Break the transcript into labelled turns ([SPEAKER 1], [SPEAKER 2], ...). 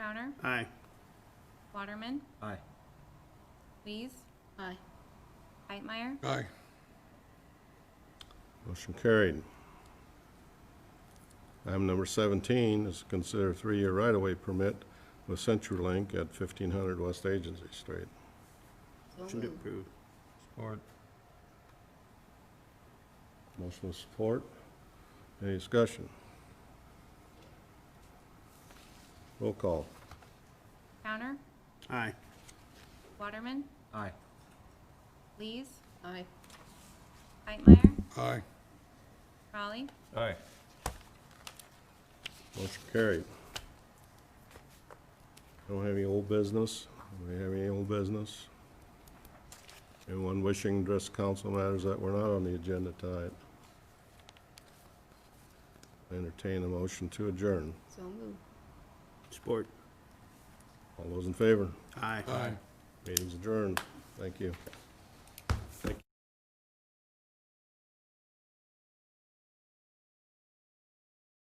[SPEAKER 1] Crowner,
[SPEAKER 2] Aye.
[SPEAKER 1] Waterman,
[SPEAKER 3] Aye.
[SPEAKER 1] Lees,
[SPEAKER 4] Aye.
[SPEAKER 1] Hightmeyer,
[SPEAKER 5] Aye.
[SPEAKER 6] Motion carried. Item number 17 is to consider three-year right-of-way permit with CenturyLink at 1500 West Agency Street.
[SPEAKER 4] So
[SPEAKER 2] Motion to
[SPEAKER 4] moved.
[SPEAKER 2] approve.
[SPEAKER 3] Support.
[SPEAKER 6] Motion with support. Any discussion? Roll call.
[SPEAKER 1] Crowner,
[SPEAKER 2] Aye.
[SPEAKER 1] Waterman,
[SPEAKER 3] Aye.
[SPEAKER 1] Lees,
[SPEAKER 4] Aye.
[SPEAKER 1] Hightmeyer,
[SPEAKER 5] Aye.
[SPEAKER 1] Raleigh,
[SPEAKER 3] Aye.
[SPEAKER 6] Motion carried. Don't have any old business? Do we have any old business? Anyone wishing to address council matters that were not on the agenda tonight? Entertain a motion to adjourn.
[SPEAKER 4] So moved.
[SPEAKER 2] Support.
[SPEAKER 6] All those in favor?
[SPEAKER 2] Aye.
[SPEAKER 5] Aye.
[SPEAKER 6] Meeting's adjourned. Thank you.